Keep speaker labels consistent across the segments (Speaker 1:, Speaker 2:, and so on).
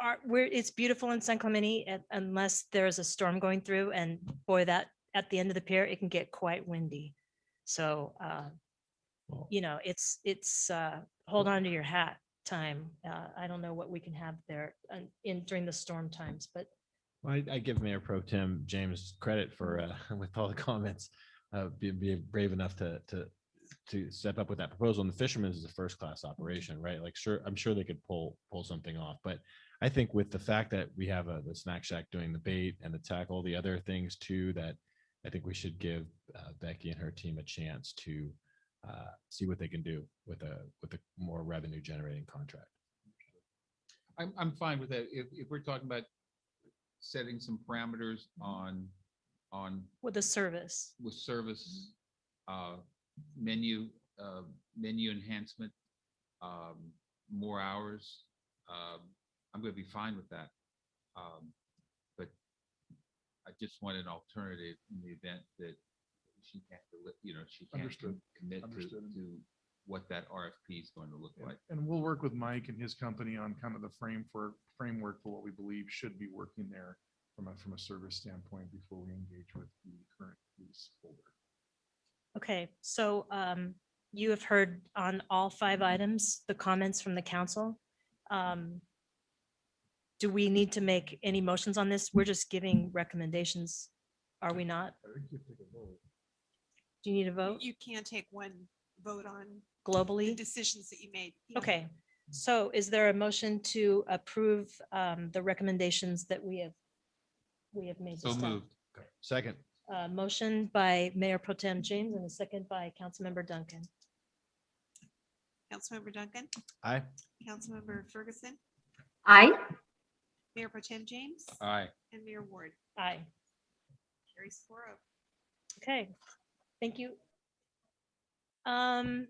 Speaker 1: are, we're, it's beautiful in San Clemente un- unless there's a storm going through and boy, that, at the end of the pier, it can get quite windy. So, uh,
Speaker 2: Well-
Speaker 1: you know, it's, it's, uh, hold on to your hat time. Uh, I don't know what we can have there uh, in, during the storm times, but
Speaker 2: I, I give Mayor Pro Tem James credit for, uh, with all the comments, uh, being, being brave enough to, to, to step up with that proposal. And the Fisherman's is a first-class operation, right? Like, sure, I'm sure they could pull, pull something off. But I think with the fact that we have uh, the Snack Shack doing the bait and the tackle, the other things too, that I think we should give uh, Becky and her team a chance to uh, see what they can do with a, with a more revenue-generating contract.
Speaker 3: I'm, I'm fine with that. If, if we're talking about setting some parameters on, on
Speaker 1: with the service.
Speaker 3: with service, uh, menu, uh, menu enhancement, um, more hours, um, I'm gonna be fine with that. Um, but I just want an alternative in the event that she can't, deli- you know, she can't
Speaker 4: Understood.
Speaker 3: commit to,
Speaker 4: Understood.
Speaker 3: to what that RFP is going to look
Speaker 4: And-
Speaker 3: like.
Speaker 4: And we'll work with Mike and his company on kind of the frame for, framework for what we believe should be working there from a, from a service standpoint before we engage with the current lease holder.
Speaker 1: Okay, so um, you have heard on all five items, the comments from the council. Um, Do we need to make any motions on this? We're just giving recommendations, are we not?
Speaker 4: I think you have to take a vote.
Speaker 1: Do you need a vote
Speaker 5: You can take one vote on the
Speaker 1: globally?
Speaker 5: decisions that you made. you know.
Speaker 1: Okay, so is there a motion to approve um, the recommendations that we have? We have made. to
Speaker 3: So
Speaker 1: staff?
Speaker 3: moved.
Speaker 2: Second.
Speaker 1: Uh, Motion by Mayor Pro Tem James and a second by Councilmember Duncan.
Speaker 5: Councilmember Duncan,
Speaker 2: Aye.
Speaker 5: Councilmember Ferguson,
Speaker 6: Aye.
Speaker 5: Mayor Pro Tem James,
Speaker 3: Aye.
Speaker 5: and Mayor Ward.
Speaker 1: Aye.
Speaker 5: Carries four oh.
Speaker 1: Okay, thank you. Um,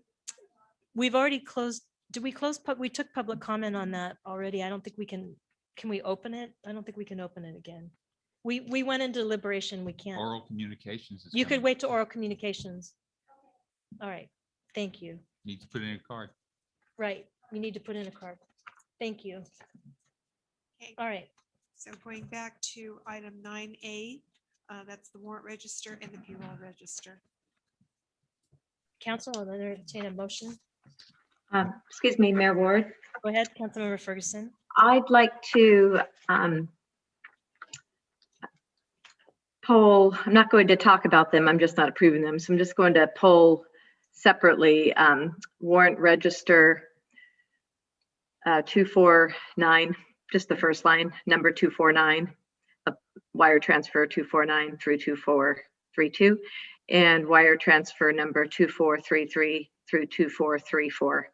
Speaker 1: we've already closed, did we close, pub- we took public comment on that already. I don't think we can, can we open it? I don't think we can open it again. We, we went into deliberation, we can't.
Speaker 3: Oral communications. is
Speaker 1: You could
Speaker 3: coming.
Speaker 1: wait to oral communications. All right, thank you.
Speaker 3: Need to put in a card.
Speaker 1: Right, you need to put in a card. Thank you.
Speaker 5: Okay,
Speaker 1: All right,
Speaker 5: so going back to item nine A, uh, that's the warrant register and the payroll register.
Speaker 1: council, I'll entertain a motion.
Speaker 6: Um, Excuse me, Mayor Ward.
Speaker 1: Go ahead, Councilmember Ferguson.
Speaker 6: I'd like to um, poll, I'm not going to talk about them. I'm just not approving them. So I'm just going to poll separately um, warrant register uh, 249, just the first line, number 249, uh, wire transfer 249 through 2432, and wire transfer number 2433 through 2434.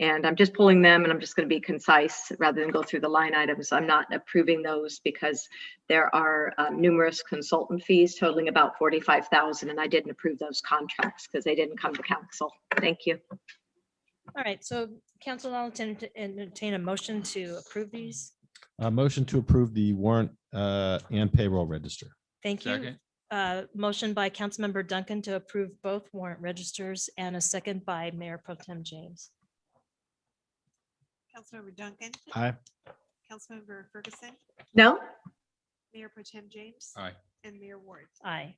Speaker 6: And I'm just pulling them and I'm just going to be concise rather than go through the line items. I'm not approving those because there are uh, numerous consultant fees totaling about 45,000 and I didn't approve those contracts because they didn't come to council. Thank you.
Speaker 1: All right, so council, I'll entertain- entertain a motion to approve these.
Speaker 2: A Uh, motion to approve the warrant uh, and payroll register.
Speaker 1: Thank you.
Speaker 3: Second.
Speaker 1: Uh, Motion by Councilmember Duncan to approve both warrant registers and a second by Mayor Pro Tem James.
Speaker 5: Councilmember Duncan,
Speaker 2: Aye.
Speaker 5: Councilmember Ferguson,
Speaker 6: No?
Speaker 5: Mayor Pro Tem James.
Speaker 3: Aye.
Speaker 5: And Mayor Ward.
Speaker 1: Aye.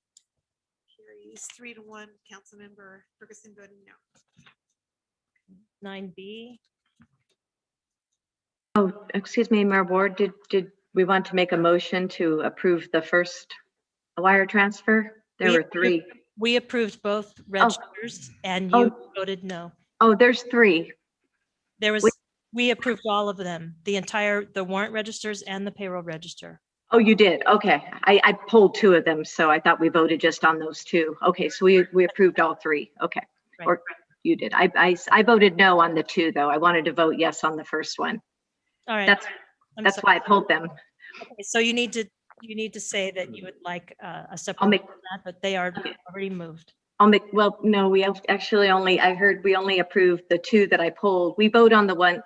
Speaker 5: Carries three to one, Councilmember Ferguson voting no.
Speaker 1: Nine B,
Speaker 6: Oh, excuse me, Mayor Ward, did, did we want to make a motion to approve the first wire transfer? There
Speaker 1: We
Speaker 6: were three.
Speaker 1: we approved both registers and you
Speaker 6: Oh.
Speaker 1: voted no.
Speaker 6: Oh, there's three.
Speaker 1: There was,
Speaker 6: We-
Speaker 1: we approved all of them, the entire, the warrant registers and the payroll register.
Speaker 6: Oh, you did? Okay. I, I pulled two of them, so I thought we voted just on those two. Okay, so we, we approved all three. Okay.
Speaker 1: Right.
Speaker 6: Or you did. I, I, I voted no on the two, though. I wanted to vote yes on the first one.
Speaker 1: All right.
Speaker 6: That's,
Speaker 1: I'm
Speaker 6: that's
Speaker 1: sorry.
Speaker 6: why I pulled them.
Speaker 1: Okay, So you need to, you need to say that you would like uh, a separate,
Speaker 6: make-
Speaker 1: vote on that, but they are
Speaker 6: Okay.
Speaker 1: already moved.
Speaker 6: I'll make, well, no, we have- actually only, I heard we only approved the two that I pulled. We vote on the one,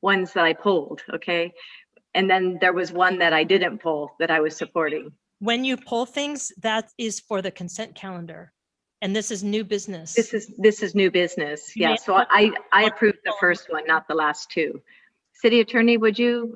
Speaker 6: ones that I pulled, okay? And then there was one that I didn't pull that I was supporting.
Speaker 1: When you pull things, that is for the consent calendar. And this is new business.
Speaker 6: This is, this is new business.
Speaker 1: You may
Speaker 6: Yeah, so I, I
Speaker 1: one
Speaker 6: approved the
Speaker 1: pull.
Speaker 6: first one, not the last two. City Attorney, would you